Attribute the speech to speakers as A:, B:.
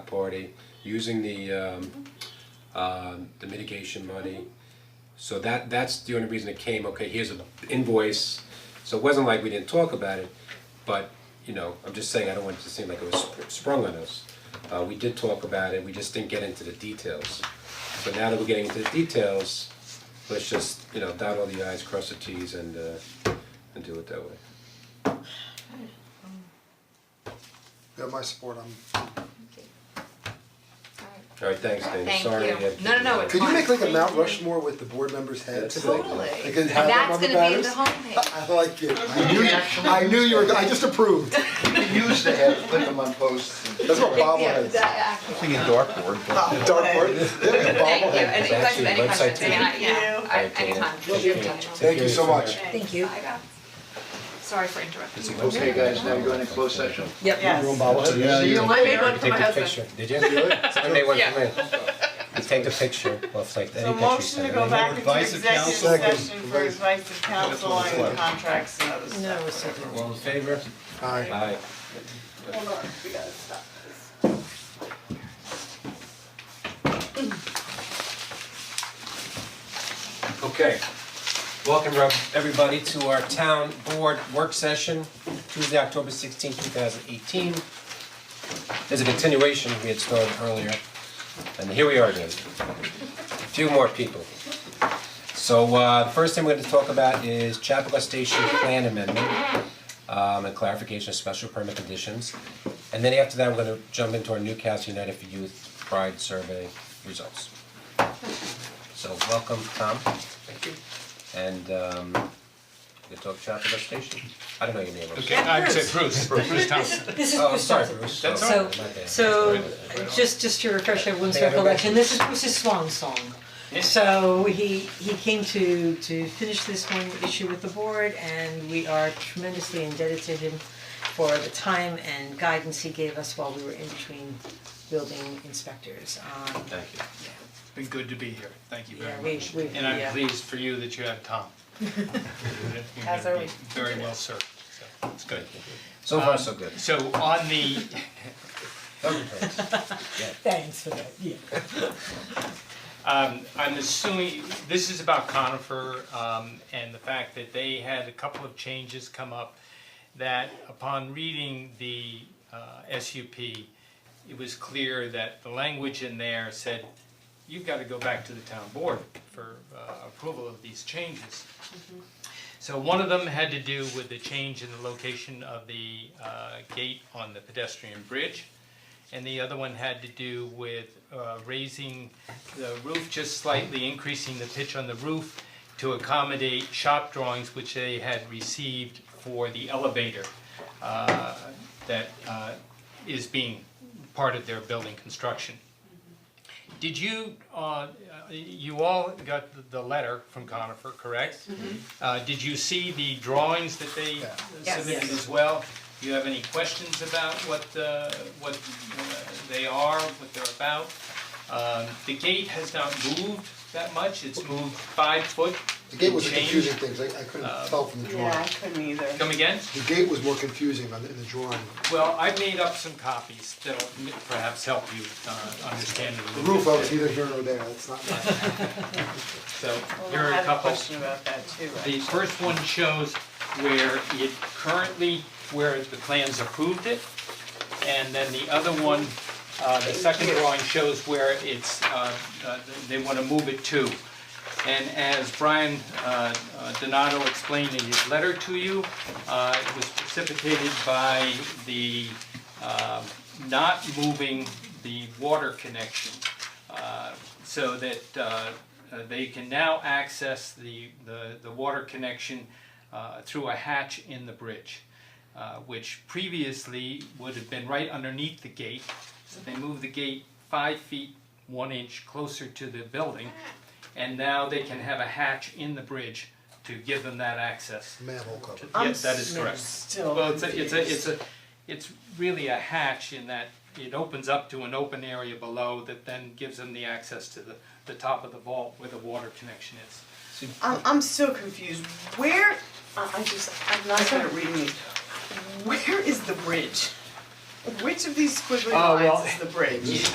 A: party, using the um um the mitigation money. So that that's the only reason it came, okay, here's an invoice, so it wasn't like we didn't talk about it, but you know, I'm just saying, I don't want it to seem like it was sp- sprung on us. Uh we did talk about it, we just didn't get into the details. So now that we're getting into the details, let's just, you know, dot all the i's, cross the t's and uh and do it that way.
B: You have my support, I'm,
A: Alright, thanks, Dana,
C: Thank
A: sorry
C: you.
A: we had to
C: No, no, no,
A: do that.
C: it's
B: could you make like a
C: Fine.
B: Mount Rushmore with the board members' heads?
A: That's a good idea.
C: Totally.
B: They could have them on the
C: That's
B: batters.
C: gonna be the homepage.
B: I like it, I
D: You
B: knew,
D: can actually
B: I knew you were, I just approved,
D: use the head, put them on posts.
B: that's what
C: Yeah,
B: bobbleheads,
C: that-
E: Something in dartboard, but
B: dark board, yeah,
C: Thank you,
B: bobblehead.
C: and if you guys have any
A: It's actually
C: questions, I mean, I,
A: website
C: yeah, I,
A: Thank you.
C: anytime.
B: Thank you so much.
F: Thank you.
C: Bye, guys. Sorry for interrupting. you.
D: Okay, guys, now you're going to close session.
F: Yep.
D: See you
C: I
D: later.
C: made one for my husband.
A: Did you? Somebody went
C: Yeah.
A: You take the picture, well, it's like any
G: So
A: picture you
G: motion
A: send.
G: to go back into
E: Advice of
G: executive
E: counsel.
B: Second.
G: session for advice of counsel on contracts and other stuff.
F: No, it's okay.
A: All in favor?
B: Aye.
A: Aye.
G: Hold on, we gotta stop this.
A: Okay. Welcome, Rob, everybody, to our town board work session, Tuesday, October sixteenth, two thousand eighteen. There's a continuation we had started earlier, and here we are again. Few more people. So, uh, the first thing we're gonna talk about is Chapua Station Plan Amendment, um, and clarification of special permit conditions. And then after that, we're gonna jump into our Newcastle United for Youth Pride Survey results. So welcome, Tom. Thank you. And um we talk shop at the station. I don't know your name. I'm
H: Okay,
A: sorry.
H: I would say Bruce, Bruce Thompson.
F: This is
A: Oh, sorry, Bruce.
H: That's
A: Sorry,
F: so
A: my bad.
F: so just just to refresh everyone's
A: Think I have a
F: recollection, this is Bruce's swan song. So he he came to to finish this one issue with the board and we are tremendously indebted to him for the time and guidance he gave us while we were in between building inspectors. Um
A: Thank you.
H: It's been good to be here, thank you
F: yeah,
H: very
F: we
H: much.
F: we
H: And I'm
F: yeah.
H: pleased for you that you have Tom. You're
G: As
H: gonna
G: are
H: be
G: we.
H: Very well served, so it's good. Um,
A: So far, so good.
H: So on the,
F: Thanks for that, yeah.
H: um, I'm assuming, this is about conifer, um, and the fact that they had a couple of changes come up that upon reading the, uh, SUP, it was clear that the language in there said, you've gotta go back to the town board for, uh, approval of these changes. So one of them had to do with the change in the location of the, uh, gate on the pedestrian bridge. And the other one had to do with uh, raising the roof just slightly, increasing the pitch on the roof to accommodate shop drawings which they had received for the elevator uh, that uh, is being part of their building construction. Did you, uh, you all got the- the letter from Conifer, correct? Uh, Did you see the drawings that they
C: Yes.
H: submitted as well? Do you have any questions about what, uh, what uh, they are, what they're about? Um, The gate has not moved that much, it's moved five foot
B: The gate
H: and
B: was a
H: change.
B: confusing thing, 'cause I I couldn't
H: Uh,
B: tell from the drawing.
G: Yeah, I couldn't either.
H: Come again?
B: The gate was more confusing on the- in the drawing.
H: Well, I've made up some copies that'll m- perhaps help you uh, understand it a
B: The
H: little
B: roof, I was
H: bit.
B: either here or there, that's not my.
H: So
G: Well,
H: here are
G: I
H: a
G: have a
H: couple.
G: question about that too,
H: The
G: actually.
H: first one shows where it currently, where the plans approved it. And then the other one, uh, the second drawing shows where it's, uh, uh, they want to move it to. And as Brian uh, uh, Donato explained in his letter to you, uh, it was precipitated by the um, not moving the water connection uh, so that uh, uh, they can now access the, the, the water connection uh, through a hatch in the bridge, uh, which previously would have been right underneath the gate. So they moved the gate five feet, one inch closer to the building, and now they can have a hatch in the bridge to give them that access.
B: Manhole cover.
H: Yes, that is correct.
G: Still.
H: Well, it's a, it's a, it's a, it's really a hatch in that it opens up to an open area below that then gives them the access to the, the top of the vault where the water connection is.
G: I'm I'm still confused, where, I I just, I'm not good at reading these, where is the bridge? Which of these squiggly
H: Oh, well, Oh,
G: lines is the bridge?